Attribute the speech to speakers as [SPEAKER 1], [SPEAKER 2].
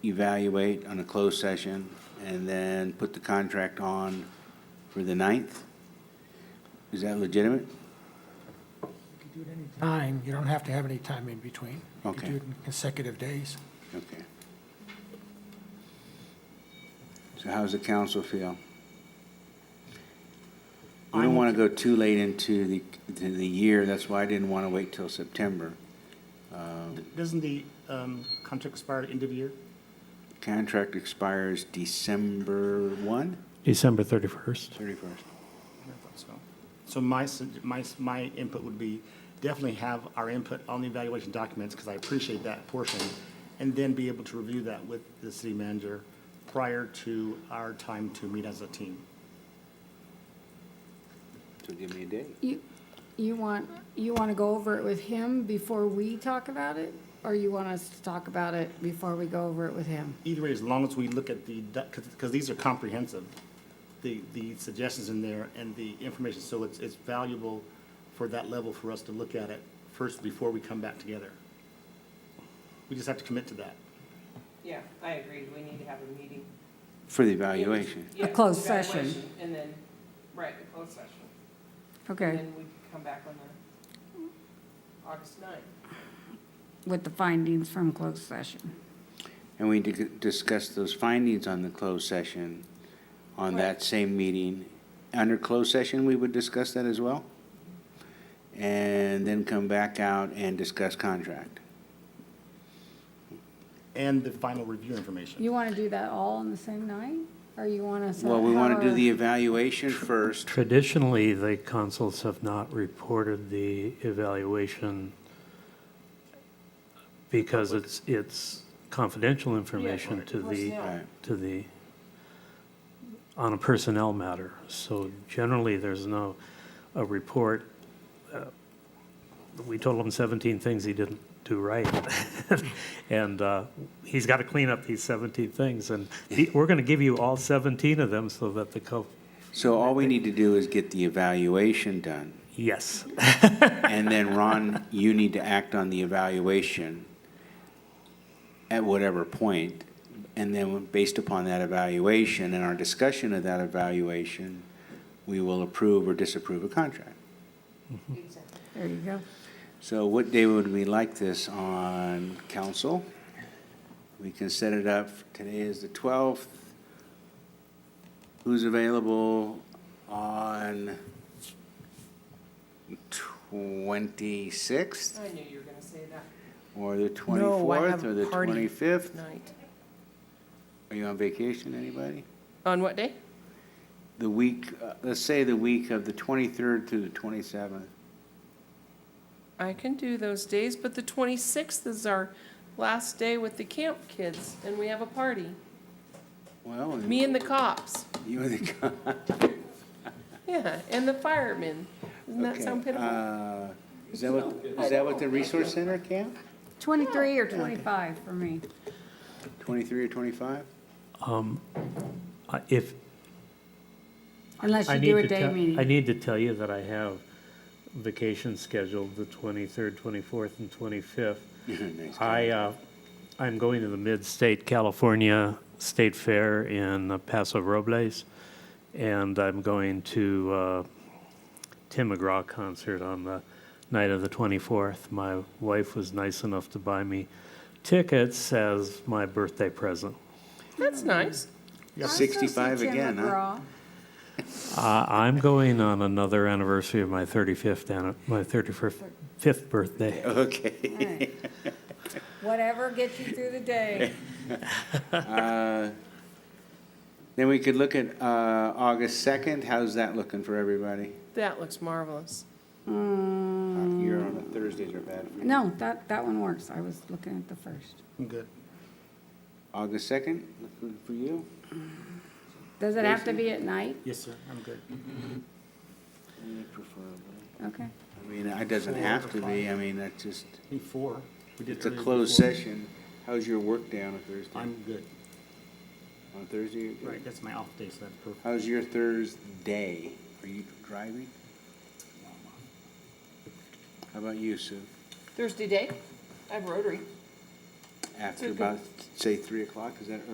[SPEAKER 1] evaluate on a closed session, and then put the contract on for the 9th? Is that legitimate?
[SPEAKER 2] Time, you don't have to have any time in between. You
[SPEAKER 1] Okay.
[SPEAKER 2] can do it in consecutive days.
[SPEAKER 1] Okay. So how's the council feel? We don't want to go too late into the, to the year, that's why I didn't want to wait till September.
[SPEAKER 3] Doesn't the um, contract expire at end of year?
[SPEAKER 1] Contract expires December 1,
[SPEAKER 4] December 31st.
[SPEAKER 1] 31st.
[SPEAKER 3] I thought so. So my, su- my, s- my input would be definitely have our input on the evaluation documents, because I appreciate that portion, and then be able to review that with the city manager prior to our time to meet as a team.
[SPEAKER 1] So give me a date.
[SPEAKER 5] You, you want, you want to go over it with him before we talk about it? Or you want us to talk about it before we go over it with him?
[SPEAKER 3] Either way, as long as we look at the, because, because these are comprehensive, the, the suggestions in there and the information, so it's, it's valuable for that level for us to look at it first before we come back together. We just have to commit to that.
[SPEAKER 6] Yeah, I agree, we need to have a meeting.
[SPEAKER 1] For the evaluation.
[SPEAKER 5] A
[SPEAKER 6] Yeah,
[SPEAKER 5] closed session.
[SPEAKER 6] evaluation, And then, right, a closed session. And
[SPEAKER 5] Okay,
[SPEAKER 6] then we could come back on the August ninth.
[SPEAKER 5] with the findings from closed session.
[SPEAKER 1] And we di- discuss those findings on the closed session on that same meeting. Under closed session, we would discuss that as well? And then come back out and discuss contract.
[SPEAKER 3] and the final review information.
[SPEAKER 5] You want to do that all on the same night? Or you want us?
[SPEAKER 1] Well, we want to do
[SPEAKER 5] however-
[SPEAKER 1] the evaluation first.
[SPEAKER 4] Traditionally, the consuls have not reported the evaluation because it's, it's confidential information to
[SPEAKER 6] course,
[SPEAKER 4] the,
[SPEAKER 6] yeah.
[SPEAKER 1] Right.
[SPEAKER 4] to the, on a personnel matter. So generally, there's no, a report, uh, we told him 17 things he didn't do right. And uh, he's got to clean up these 17 things, and the- we're going to give you all 17 of them so that the co,
[SPEAKER 1] So all we need to do is get the evaluation done.
[SPEAKER 4] yes.
[SPEAKER 1] And then, Ron, you need to act on the evaluation at whatever point, And then, based upon that evaluation and our discussion of that evaluation, we will approve or disapprove a contract.
[SPEAKER 6] Exactly.
[SPEAKER 5] There you go.
[SPEAKER 1] So what day would we like this on council? We can set it up, today is the 12th. Who's available on 26th?
[SPEAKER 6] I knew you were gonna say that.
[SPEAKER 1] Or the
[SPEAKER 7] No, I have
[SPEAKER 1] twenty-fourth, or the
[SPEAKER 7] a party.
[SPEAKER 1] twenty-fifth?
[SPEAKER 7] night.
[SPEAKER 1] Are you on vacation, anybody?
[SPEAKER 7] On what day?
[SPEAKER 1] The week, uh, let's say the week of the twenty-third to the twenty-seventh.
[SPEAKER 7] I can do those days, but the 26th is our last day with the camp kids, and we have a party.
[SPEAKER 1] Well, and
[SPEAKER 7] Me and the cops,
[SPEAKER 1] you and the.
[SPEAKER 7] yeah, and the firemen. Doesn't that
[SPEAKER 1] Okay,
[SPEAKER 7] sound pitiful?
[SPEAKER 1] uh, Is that what, is that what the resource center camp?
[SPEAKER 5] 23 or 25 for me.
[SPEAKER 1] Twenty-three or twenty-five?
[SPEAKER 4] Uh, If,
[SPEAKER 5] Unless
[SPEAKER 4] I
[SPEAKER 5] you
[SPEAKER 4] need
[SPEAKER 5] do a
[SPEAKER 4] to
[SPEAKER 5] day
[SPEAKER 4] tell, I
[SPEAKER 5] meeting.
[SPEAKER 4] need to tell you that I have vacation scheduled the 23rd, 24th, and 25th.
[SPEAKER 1] Mm-hmm.
[SPEAKER 4] I, uh, I'm going to the Mid-State California State Fair in Paso Robles, and I'm going to uh, Tim McGraw concert on the night of the 24th. My wife was nice enough to buy me tickets as my birthday present.
[SPEAKER 7] That's nice.
[SPEAKER 5] I'll still see
[SPEAKER 1] 65
[SPEAKER 5] Tim
[SPEAKER 1] again, huh?
[SPEAKER 5] McGraw.
[SPEAKER 4] Uh, I'm going on another anniversary of my 35th, anni- my 35th fifth birthday.
[SPEAKER 1] Okay.
[SPEAKER 5] All right. Whatever gets you through the day.
[SPEAKER 1] Then we could look at, uh, August second, how's that looking for everybody?
[SPEAKER 7] That looks marvelous.
[SPEAKER 1] Uh,
[SPEAKER 7] Mm.
[SPEAKER 1] You're on a, Thursdays are bad for you.
[SPEAKER 5] Mm, No, that, that one works. I was looking at the first.
[SPEAKER 3] I'm good.
[SPEAKER 1] August second, looking for you?
[SPEAKER 5] Does it have to be at night?
[SPEAKER 3] Yes, sir, I'm good.
[SPEAKER 1] Preferably.
[SPEAKER 5] Okay.
[SPEAKER 1] I mean, it doesn't have to be, I mean, that's just,
[SPEAKER 3] Before. we did
[SPEAKER 1] it's a
[SPEAKER 3] earlier
[SPEAKER 1] closed
[SPEAKER 3] before.
[SPEAKER 1] session. How's your work day on a Thursday?
[SPEAKER 3] I'm good.
[SPEAKER 1] On Thursday? you're good?
[SPEAKER 3] Right, that's my off day, so that's perfect.
[SPEAKER 1] How's your Thursday? Are you driving? How about you, Sue?
[SPEAKER 6] Thursday day, I have Rotary.
[SPEAKER 1] after about, say, 3 o'clock, is that